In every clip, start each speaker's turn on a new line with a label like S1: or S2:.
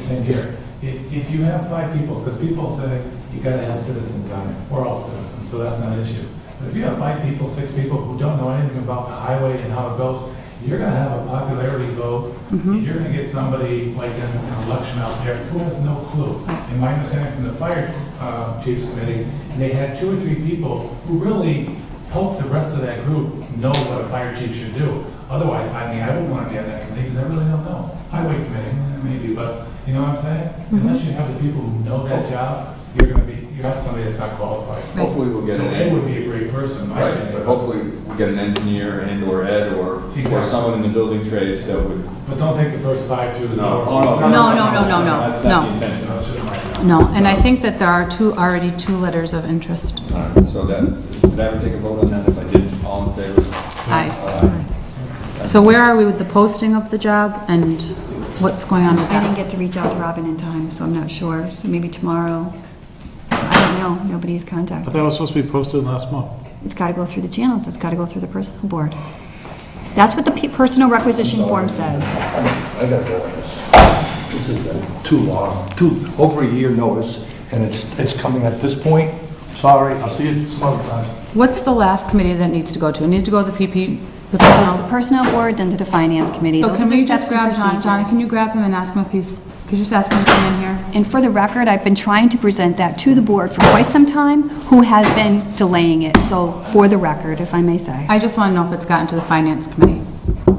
S1: thing here. If, if you have five people, because people say you gotta have citizens on it, we're all citizens, so that's not an issue. But if you have five people, six people who don't know anything about the highway and how it goes, you're gonna have a popularity vote, and you're gonna get somebody like in an election out there who has no clue. And my understanding from the fire uh, chiefs committee, they had two or three people who really helped the rest of that group know what a fire chief should do. Otherwise, I mean, I wouldn't want to be on that committee because I really don't know. Highway committee, eh, maybe, but you know what I'm saying? Unless you have the people who know that job, you're gonna be, you have somebody that's not qualified.
S2: Hopefully we'll
S1: So
S2: get an,
S1: they would
S2: en-
S1: be a great person, in my
S2: right, but
S1: opinion.
S2: hopefully we get an engineer and or Ed or, or
S1: Exactly.
S2: someone in the building trades that would.
S1: But don't take the first five through the door.
S2: Oh,
S3: No, no, no, no, no,
S2: That's
S3: no.
S2: not the
S1: You
S2: intention.
S1: know, it's just my job.
S3: No, and I think that there are two, already two letters of interest.
S2: All right, So that, did I ever take a vote on that? If I did, all in favor?
S3: Aye. So where are we with the posting of the job and what's going on with
S4: I didn't
S3: that?
S4: get to reach out to Robin in time, so I'm not sure. So Maybe tomorrow. I don't know. Nobody's
S5: But
S4: contacted.
S5: that was supposed to be posted last month.
S4: It's got to go through the channels. It's got to go through the personnel board. That's what the pe- personal requisition form says.
S6: I got this. This has been too long, too, over a year notice, and it's, it's coming at this point. Sorry, I'll see you some other time.
S3: What's the last committee that needs to go to? It needs to go to the PP, the
S4: It's the
S3: personnel.
S4: personnel board, then to the finance committee.
S3: So
S4: Those
S3: can
S4: are the
S3: we
S4: steps
S3: just
S4: and
S3: grab John? John,
S4: procedures.
S3: can you grab him and ask him if he's, could you just ask him to come in here?
S4: And for the record, I've been trying to present that to the board for quite some time, who has been delaying it. So for the record, if I may say.
S3: I just want to know if it's gotten to the finance committee.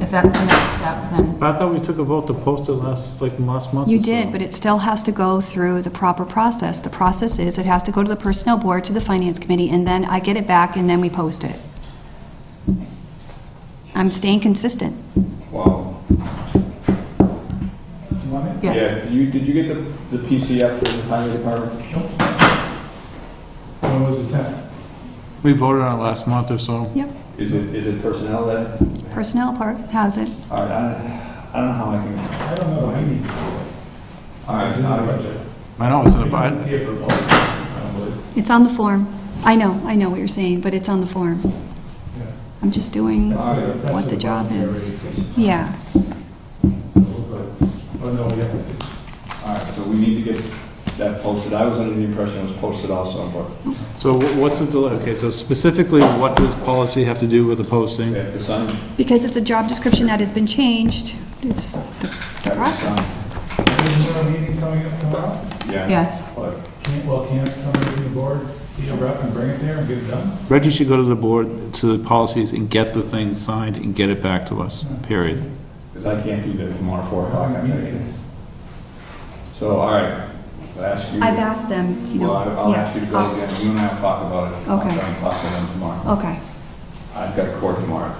S3: If that's the next step, then,
S5: But I thought we took a vote to post it last, like, last month.
S4: You
S5: or so.
S4: did, but it still has to go through the proper process. The process is, it has to go to the Personnel Board, to the Finance Committee, and then I get it back, and then we post it. I'm staying consistent.
S2: Wow.
S1: You want it?
S3: yes.
S2: Yeah, you, did you get the, the PCF from the highway department?
S1: When was it sent?
S5: We voted on it last month or so.
S4: Yep.
S2: Is it, is it personnel that,
S4: Personnel part has it.
S2: all right, I, I don't know how I can,
S1: I don't know, I need to see it.
S2: all right,
S1: It's not a
S2: I-
S1: budget.
S5: I know, it's in the,
S1: You can
S5: bi-
S1: see it for both, I don't believe.
S4: It's on the form. I know, I know what you're saying, but it's on the form.
S1: Yeah.
S4: I'm just doing,
S1: That's
S2: Alright.
S1: that's
S4: What the job is.
S1: priority
S4: yeah.
S1: Oh, no, we have to see.
S2: all right, so we need to get that posted. I was under the impression it was posted also, but
S5: so wh- what's the delay? Okay, so specifically, what does policy have to do with the
S2: we
S5: posting?
S2: have to sign.
S4: Because it's a job description that has been changed, it's the the
S2: Have to sign.
S4: process.
S1: Is there a meeting coming up tomorrow?
S2: Yeah.
S3: Yes.
S2: But
S1: Can't, well, can't somebody from the board be a rep and bring it there and get it done?
S5: Reggie should go to the board, to the policies, and get the thing signed and get it back to us, period.
S2: Because I can't do that tomorrow for
S1: Well, I got meetings.
S2: her. So, all right, I'll ask you.
S4: I've asked them, you know,
S2: Well, I- I'll ask
S4: yes.
S2: you to go again, you and I will talk about it.
S4: Okay.
S2: I'll try and talk to them tomorrow.
S4: Okay,
S2: I've got court tomorrow.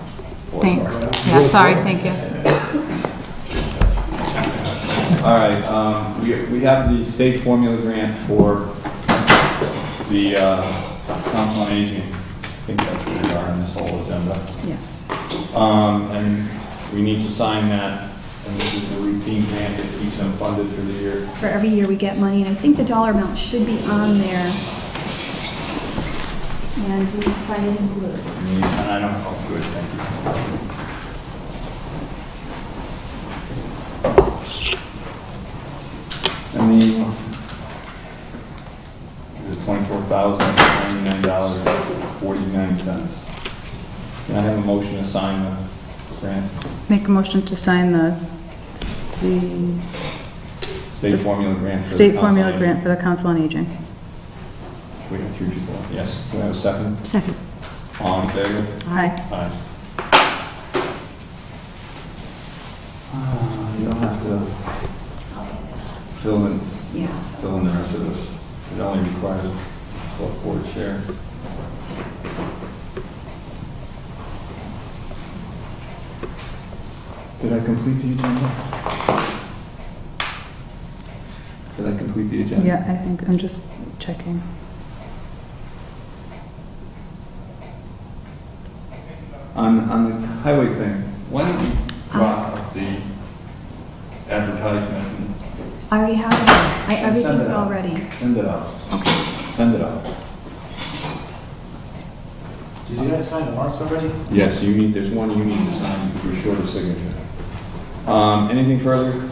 S2: Four
S3: Thanks.
S2: o'clock.
S3: Yeah, sorry, thank you.
S2: All right, um, we we have the state formula grant for the uh, council on aging. I think that's where we are in this whole agenda.
S4: yes.
S2: Um, And we need to sign that, and this is a routine grant that keeps them funded for the year.
S4: For every year we get money, and I think the dollar amount should be on there. And we sign it in blue.
S2: And I don't, oh, good, thank you. And the, the twenty-four thousand, ninety-nine dollars, forty-nine cents. Can I have a motion to sign the grant,
S3: Make a motion to sign the C-
S2: state formula grant? for the
S3: state
S2: Council
S3: formula
S2: on
S3: grant for the Council on Aging.
S2: Aging? We have three people, yes. Do I have a second?
S4: Second.
S2: All in favor?
S3: Aye.
S2: Aye. Uh, You don't have to fill in,
S4: Yeah.
S2: fill in the rest of this. It only requires a select board chair. Did I complete the agenda? Did I complete the agenda?
S3: Yeah, I think, I'm just checking.
S2: On, on the highway thing, why don't we drop the advertisement and
S4: I already have it. I,
S2: And send
S4: everything's
S2: it out.
S4: all ready.
S2: Send it out. Send it out.
S7: Did you guys sign the warrants already?
S2: Yes, you need, there's one you need to sign, you're short of signature. Um, anything further?